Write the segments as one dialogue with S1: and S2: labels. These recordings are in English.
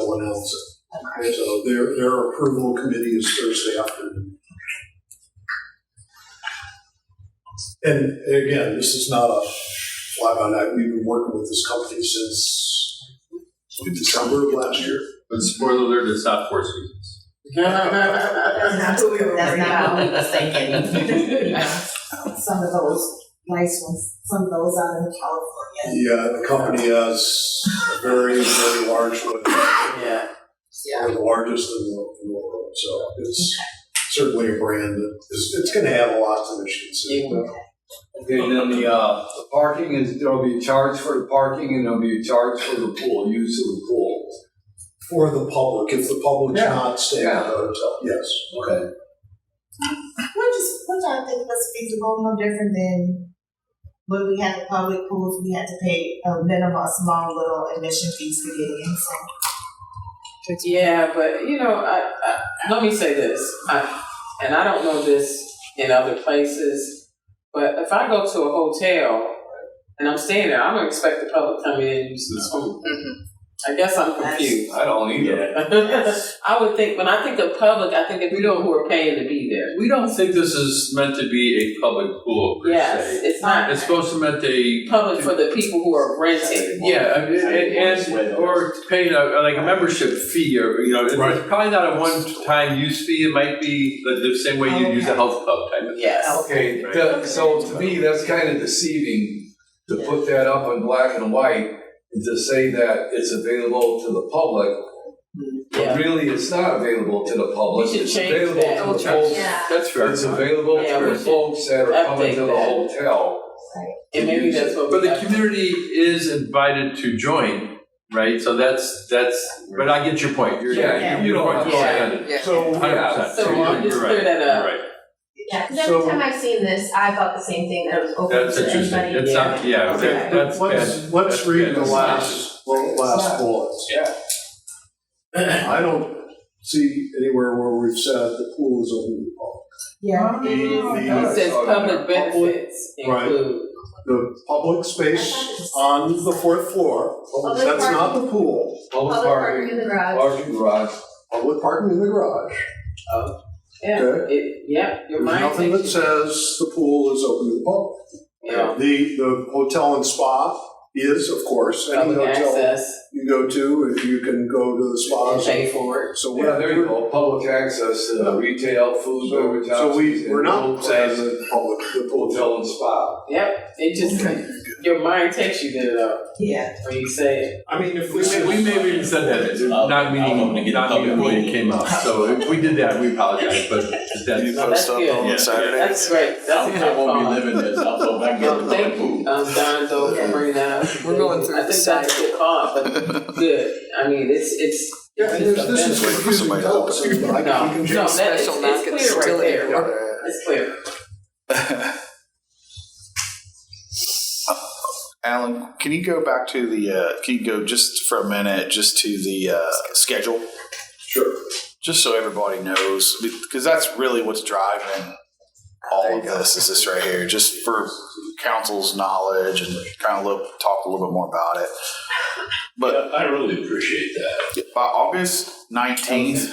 S1: announce it. And so their, their approval committee is Thursday afternoon. And again, this is not a fly by night. We've been working with this company since December of last year.
S2: But spoiler alert, it's not four seasons.
S3: That's not what we were
S4: That's
S3: worried
S4: not what we
S3: about.
S4: was thinking.
S3: Some of those nice ones, some of those out in California.
S1: Yeah, the company has a very, very large one,
S5: Yeah.
S1: one of the largest in the, in the world. So it's certainly a brand that is, it's going to add a lot to Michigan City.
S6: Okay, then the, uh, the parking is, there'll be a charge for the parking and there'll be a charge for the pool, use of the pool.
S1: For the public, if the public's
S6: Yeah.
S1: not staying at the hotel, yes.
S6: Okay.
S3: Which is, which I think was feasible, no different than when we had the public pools, we had to pay a minimal, small little admission fees to get in, so.
S5: Yeah, but you know, I, I, let me say this, I, and I don't know this in other places, but if I go to a hotel and I'm staying there, I don't expect the public coming in and using the swimming pool.
S4: Mm-hmm.
S5: I guess I'm confused.
S6: I don't either.
S5: I would think when I think of public, I think of people who are paying to be there.
S2: We don't think this is meant to be a public pool per
S5: Yes,
S2: se.
S5: it's not
S2: It's supposed to meant a
S5: public for the people who are renting.
S2: yeah, I mean, and, and or paying a like a membership fee or you know it's
S1: Right.
S2: probably not a one time use fee. It might be the, the same way
S6: Oh,
S2: you use a health club type of
S4: Oh.
S5: Yes.
S6: Okay, the- so to me, that's kind of deceiving to put that up in black and white and to say that it's available to the public.
S5: Yeah.
S6: But really, it's not available to the public.
S5: We should
S6: It's
S5: change
S6: available
S5: that.
S6: to the folks.
S4: Yeah.
S2: That's fair.
S6: It's available
S5: Yeah, we
S6: to the
S5: should
S6: folks that are coming
S5: update
S6: to the
S5: that.
S6: hotel.
S5: And maybe that's what we
S2: But the
S5: have to-
S2: community is invited to join, right? So that's that's. But I get your point. You're,
S6: Yeah, you don't have to
S5: Yeah.
S6: say it.
S1: So
S6: Yeah.
S5: So
S2: you're,
S5: we just
S2: you're
S5: clear
S2: right.
S5: that uh,
S2: You're
S5: up.
S2: right.
S4: Yeah, because every
S1: So-
S4: time I've seen this, I thought the same thing, that it was open
S2: That's
S4: to
S2: interesting.
S4: anybody.
S2: It's not. Yeah. That, that's bad.
S1: let's, let's
S2: That's
S1: read the
S2: bad.
S1: last, well, last bullet.
S6: Yeah.
S1: I don't see anywhere where we've said the pool is open to the public. The,
S3: Yeah.
S5: It says public benefits
S1: Right.
S5: include.
S1: the, the public space on the fourth floor,
S4: Public
S1: that's not the pool,
S6: Public
S4: Public parking
S6: parking,
S4: in the garage.
S6: parking garage.
S1: public parking in the garage.
S5: Yeah,
S1: Okay.
S5: it, yeah,
S1: There's
S5: your mind
S1: nothing that
S5: takes you.
S1: says the pool is open to the public.
S5: Yeah,
S1: The, the hotel and spa is, of course, any
S5: public
S1: hotel
S5: access,
S1: you go to, if you can go to the
S5: and
S1: spas.
S5: pay for it.
S1: So
S6: Yeah,
S1: we're,
S6: there you go, public access, uh, retail, food,
S1: so,
S6: beverage.
S1: so we,
S6: houses,
S1: we're not
S6: and
S1: saying
S6: hotels,
S1: the public, the pool.
S6: Hotel and spa.
S5: Yep, it just, your mind takes you there though,
S3: Yeah.
S5: when you say it.
S1: I mean, if
S2: We may, we may have even said that, not meaning, not meaning when it came out, so if we did that, we apologize, but that's.
S5: No, that's good.
S7: Yeah.
S5: That's great, that's a
S7: I
S5: good
S7: won't be
S5: call.
S7: living this, I'll go back
S5: Um,
S7: in the
S5: thank you, um, Don, though, for bringing that up.
S8: We're going through
S5: I
S8: the
S5: think that's a good call, but good, I mean, it's, it's.
S1: Yeah, and there's, this is
S7: Wait for
S1: confusing
S7: somebody to
S1: to us.
S7: open.
S1: I can-
S5: No, no, that, it's,
S8: special market
S5: it's clear right
S8: facility.
S5: there, it's clear.
S7: Alan, can you go back to the, uh, can you go just for a minute, just to the uh, schedule?
S1: Sure.
S7: Just so everybody knows, because that's really what's driving all of this, is this right here, just for council's knowledge and kind of look, talk a little bit more about it. But
S9: I really appreciate that.
S7: by August nineteenth,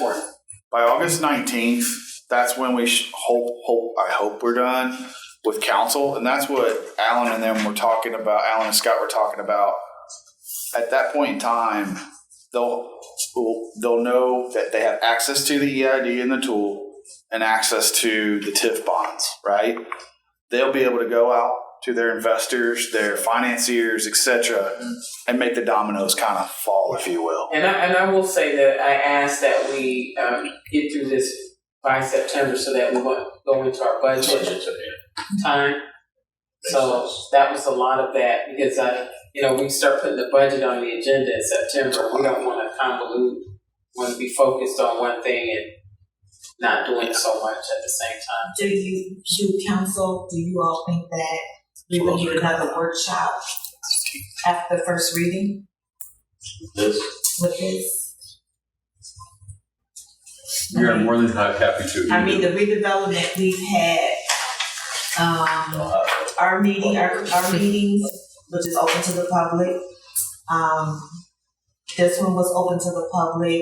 S7: by August 19th, that's when we sh- hope, hope, I hope we're done with council. And that's what Alan and them were talking about, Alan and Scott were talking about. At that point in time, they'll, will- they'll know that they have access to the EID and the tool and access to the TIF bonds, right? They'll be able to go out to their investors, their financiers, et cetera, and make the dominoes kind of fall, if you will.
S5: And I, and I will say that I ask that we, um, get through this by September so that we won't go into our budget time. So that was a lot of that because I, you know, we start putting the budget on the agenda in September. We don't want to convolute, want to be focused on one thing and not doing so much at the same time.
S3: Do you, do council, do you all think that we would need another workshop after the first reading
S9: This,
S3: with this?
S2: We are more than happy to.
S3: I mean, the redevelopment, we've had, um, our meeting, our, our meetings, which is open to the public. Um, this one was open to the public.